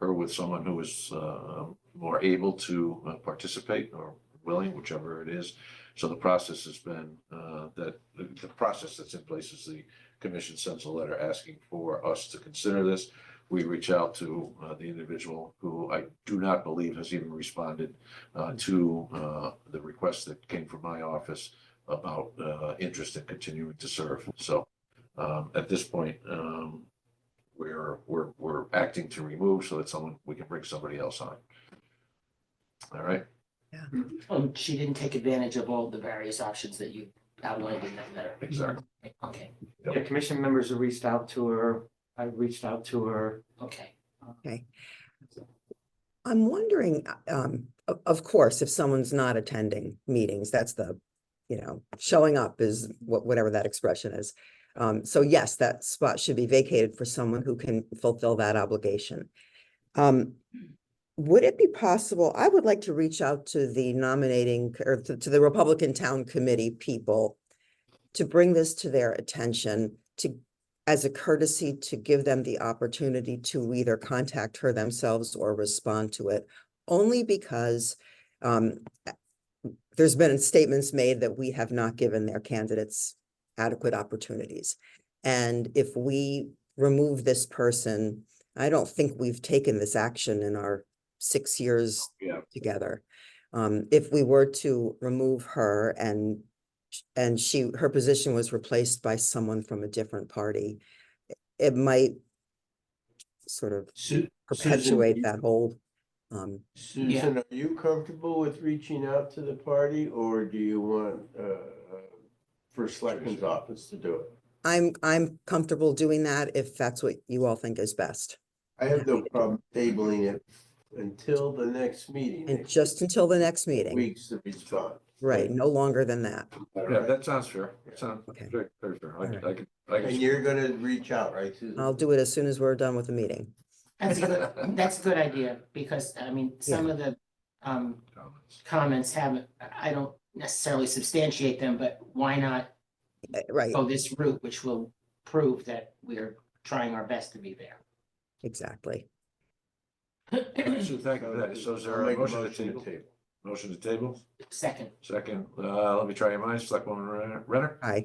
her with someone who is uh, more able to uh, participate or willing, whichever it is. So the process has been, uh, that, the the process that's in place is the commission sends a letter asking for us to consider this. We reach out to uh, the individual who I do not believe has even responded uh, to uh, the request that came from my office about uh, interest in continuing to serve. So um, at this point, um, we're, we're, we're acting to remove so that someone, we can bring somebody else on. All right, Um, she didn't take advantage of all the various options that you outlined in that letter. exactly. Okay, Yep. Yeah, commission members have reached out to her. I reached out to her. okay. I'm wondering, uh, um, of, of course, if someone's not attending meetings, that's the, you know, showing up is what, whatever that expression is. Um, so yes, that spot should be vacated for someone who can fulfill that obligation. Um, would it be possible, I would like to reach out to the nominating c- or to, to the Republican Town Committee people to bring this to their attention to as a courtesy to give them the opportunity to either contact her themselves or respond to it, only because um, there's been statements made that we have not given their candidates adequate opportunities. And if we remove this person, I don't think we've taken this action in our six years Yeah. together. Um, if we were to remove her and, sh- and she, her position was replaced by someone from a different party, it might sort of Su- Susan, perpetuate you- that whole, um, Susan, are you comfortable with reaching out to the party or do you want, uh, first selectman's office to do it? I'm, I'm comfortable doing that if that's what you all think is best. I have no problem tabling it until the next meeting. And next just until the next meeting, Weeks to respond. right, no longer than that. All Yeah, right? that sounds fair. That sounds Okay. very, very fair. I could, I could. I And could- you're gonna reach out, right, Susan? I'll do it as soon as we're done with the meeting. That's a good, that's a good idea, because, I mean, some of the, um, comments haven't, I don't necessarily substantiate them, but why not Uh, Right, Oh. go this route, which will prove that we're trying our best to be there. exactly. So thank you for that. So is there I'll a make motion to table? Motion to table? Second, Second, uh, let me try your minds. Selectwoman Renner- Renner? Aye.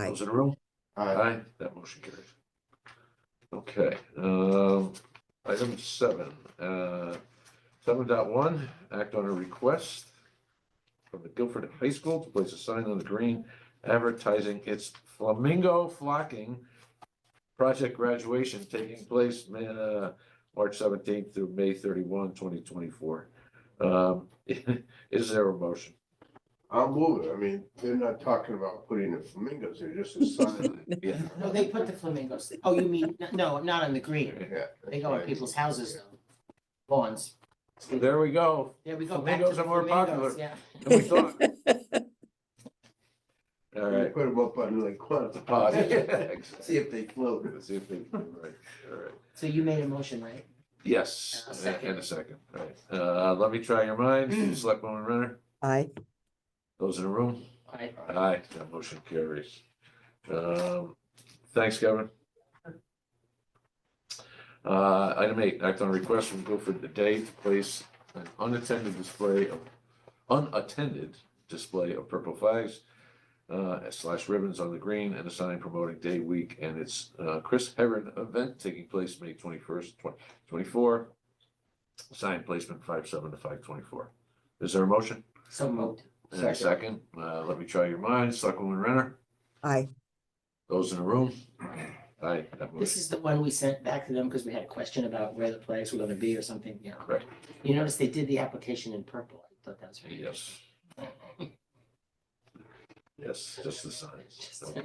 Aye. Those in the room? Aye. Aye, that motion carries. Okay, um, item seven, uh, seven dot one, act on a request from the Guilford High School to place a sign on the green advertising its flamingo flocking project graduation taking place, Ma- uh, March seventeenth through May 31, 2024. Um, is there a motion? I'll move it. I mean, they're not talking about putting the flamingos there, just a sign. Yeah. no, they put the flamingos, oh, you mean, no, not on the green, Yeah. they go on people's houses though, lawns. There we go. There we go. back to Flamingos are more flamingos, popular. Yeah. And we thought- All You right. Put them up on like. one- The pod. Exactly. See if they float. Let's see if they- right, all right. So you made a motion, right? Yes, A and second. and a second, Mm. right. Uh, let me try your minds. Selectwoman Renner, Aye, those in the room? Alright, Aye, that motion carries. Um, thanks, Kevin. Uh, item eight, act on a request from Guilford Day to place an unattended display of, unattended display of purple flags uh, slash ribbons on the green and a sign promoting Day Week and its, uh, Chris Heron event taking place May twenty-first, twenty twenty-four. Sign placement five seven to five twenty-four. Is there a motion? so moved. And a second, uh, let me try your minds, Selectwoman Renner, aye, those in the room? Aye, that This motion, is the one we sent back to them because we had a question about where the flags were gonna be or something, yeah. Correct. You notice they did the application in purple. I thought that was very interesting. yes. Yes, just the signs, okay.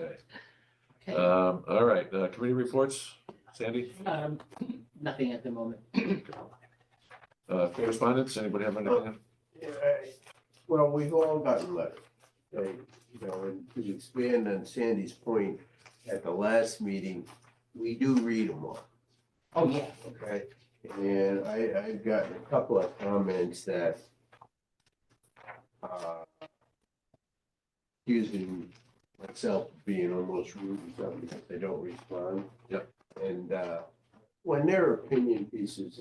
Okay, Um, all right, uh, committee reports, Sandy, um, nothing at the moment. uh, correspondence, anybody have anything? Yeah, I- Well, we've all gotten letters, right? You know, and to expand on Sandy's point, at the last meeting, we do read them all, Oh, yeah, okay? And I, I've gotten a couple of comments that uh, accusing myself of being almost rude or something, because they don't respond. Yep. And uh, when their opinion pieces